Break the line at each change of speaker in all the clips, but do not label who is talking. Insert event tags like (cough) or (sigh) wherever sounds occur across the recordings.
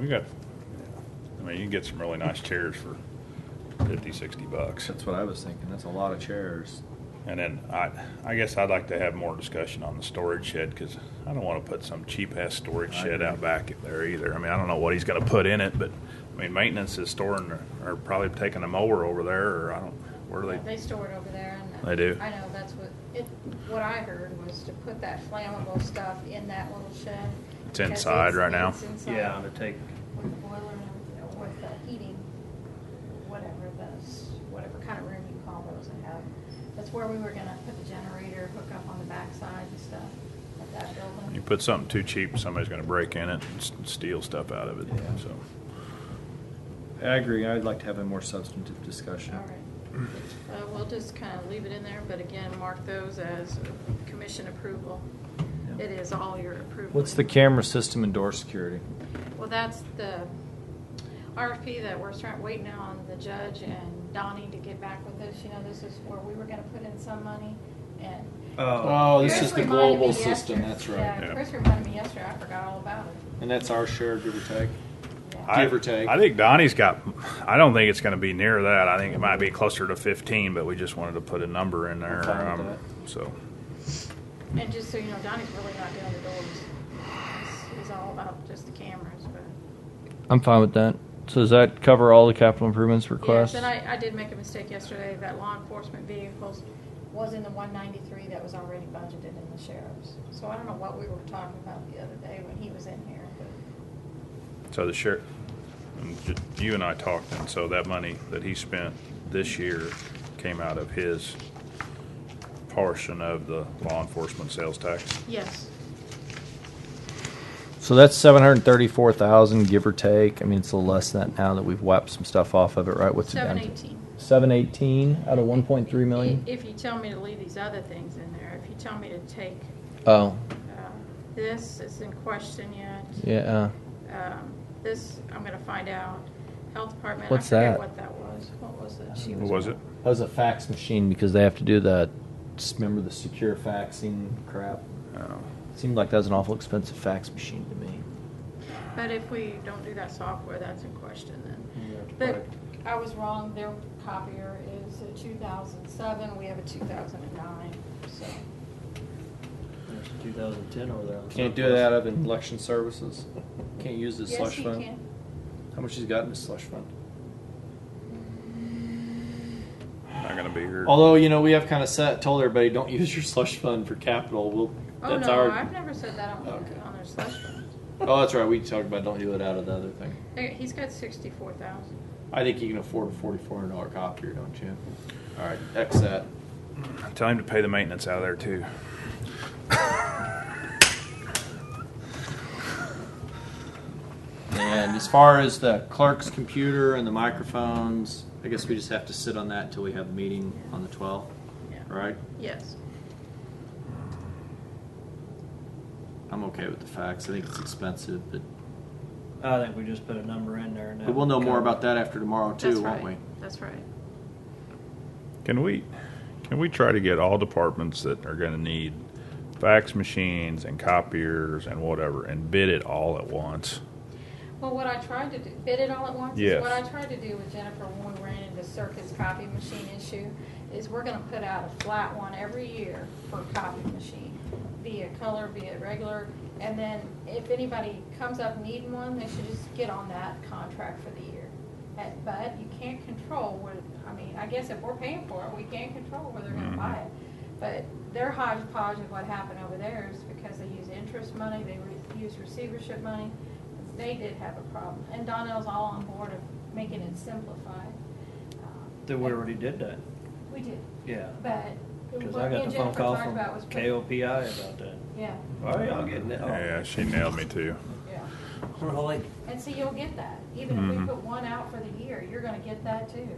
we got, I mean, you can get some really nice chairs for fifty, sixty bucks.
That's what I was thinking. That's a lot of chairs.
And then I, I guess I'd like to have more discussion on the storage shed because I don't want to put some cheap ass storage
I
shed
agree.
out back if there either. I mean, I don't know what he's going to put in it, but I mean, maintenance is storing or, or probably taking a mower over there, or I don't. Where are they?
They store it over there and.
They do?
I know, that's what, it, what I heard was to put that flammable stuff in that little shed.
It's
because
inside
it's-
right now?
it's inside
To take.
With the boiler and, uh, with the heating, whatever those, whatever kind of room you call those I have. That's where we were gonna put the generator, hook up on the backside and stuff of that
You
building.
put something too cheap, somebody's going to break in it and s- steal stuff out of it.
Yeah.
So
I agree. I'd like to have a more substantive discussion.
All right. Uh, we'll just kind of leave it in there, but again, mark those as commission approval.
Yeah.
It is all your approval.
What's the camera system and door security?
Well, that's the RFP that we're start, waiting on the judge and Donnie to get back with us. You know, this is where we were gonna put in some money and.
Oh, this
Chris
is the
reminded me
global system,
yesterday-
that's right.
Yeah,
Yeah.
Chris reminded me yesterday, I forgot all about it.
And that's our share, give or take.
Yeah.
I,
Give or take.
I think Donnie's got. I don't think it's going to be near that. I think it might be closer to fifteen, but we just wanted to put a number in there. um,
I'm fine with
so
And just so you know, Donnie's really not doing the doors. He's- He's all about just the cameras, but.
I'm fine with that. So does that cover all the capital improvements
Yes,
requests?
and I, I did make a mistake yesterday, that law enforcement vehicles was in the one ninety-three that was already budgeted in the sheriff's. So I don't know what we were talking about the other day when he was in here, but
So the sheriff, and ju- you and I talked, and so that money that he spent this year came out of his portion of the law enforcement sales tax.
yes.
So that's seven hundred thirty-four thousand, give or take. I mean, it's a little less than that now that we've wiped some stuff off of it, right? What's it down
Seven
to?
eighteen.
Seven eighteen out of one point three million.
If you tell me to leave these other things in there, if you tell me to take,
Oh,
uh, this, it's in question yet.
yeah. uh,
Um, This, I'm gonna find out. Health department, I
What's
forget
that?
what that was. What was it? She
What was it?
That was a fax machine because they have to do the. Just remember the secure faxing crap.
Oh.
Seemed like that was an awful expensive fax machine to me.
But if we don't do that software, that's in question
You
then.
have to
But I was wrong, their copier is a two thousand seven, we have a two thousand and nine, so.
There's a 2010 over there. on
Can't do
Southwest.
that out of in election services. Can't use the
Yes,
slush
he
fund.
can.
How much he's got in his slush fund?
Not gonna be here.
Although you know we have kind of set told everybody don't (laughs) use your slush fund for capital. We'll
Oh,
that's
no,
our.
I've never said that on,
Okay.
on their slush fund.
Oh, that's right. We talked about don't do it out of the other thing.
There- He's got sixty-four thousand.
I think you can afford a forty-four hundred dollar copier, don't you? All right, X that.
Tell him to pay the maintenance out of there too.
And as far as the clerk's computer and the microphones, I guess we just have to sit on that until we have the meeting on the twelfth,
Yeah.
right?
Yes.
I'm okay with the facts. I think it's expensive, but,
I think we just put a number in there. And
but we'll know more
that'll
about that after tomorrow
That's
too, won't we?
right. That's right.
Can we, can we try to get all departments that are gonna need fax machines and copiers and whatever and bid it all at once?
Well, what I tried to do, bid it all at once, is
Yes.
what I tried to do with Jennifer when we ran into Circus copy machine issue, is we're gonna put out a flat one every year for copy machine, be it color, be it regular, and then if anybody comes up needing one, they should just get on that contract for the year. But- But you can't control what, I mean, I guess if we're paying for it, we can't control where they're gonna buy it. But their hodgepodge of what happened over there is because they use interest money, they re- use receivership money, they did have a problem. And Donnell's all on board of making it simplified. Um,
That we already did that.
We did,
Yeah.
but
Because
what
I
me
got
and
the phone
Jennifer
call
talked
from
about was.
KOPI about that.
Yeah,
All right, I'll get it.
Yeah, she nailed me too.
yeah.
Really?
And so you'll get that. Even if we
Mhm.
put one out for the year, you're gonna get that too.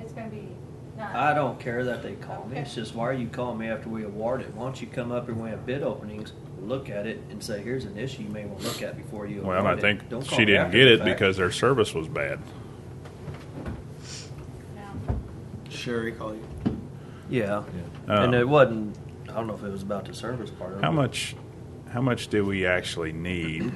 It's gonna be not.
I don't care that they call me.
Okay.
It's just, why are you calling me after we award it? Why don't you come up and we have bid openings, look at it and say, here's an issue you may want to look at before you award
Well, I
it.
think
Don't call
she
me
didn't
after
get
the
it
fact.
because their service was bad.
Yeah.
Sherry call you.
Yeah.
Yeah. Um,
And it wasn't, I don't know if it was about the service part of it.
How
but-
much, how much do we actually need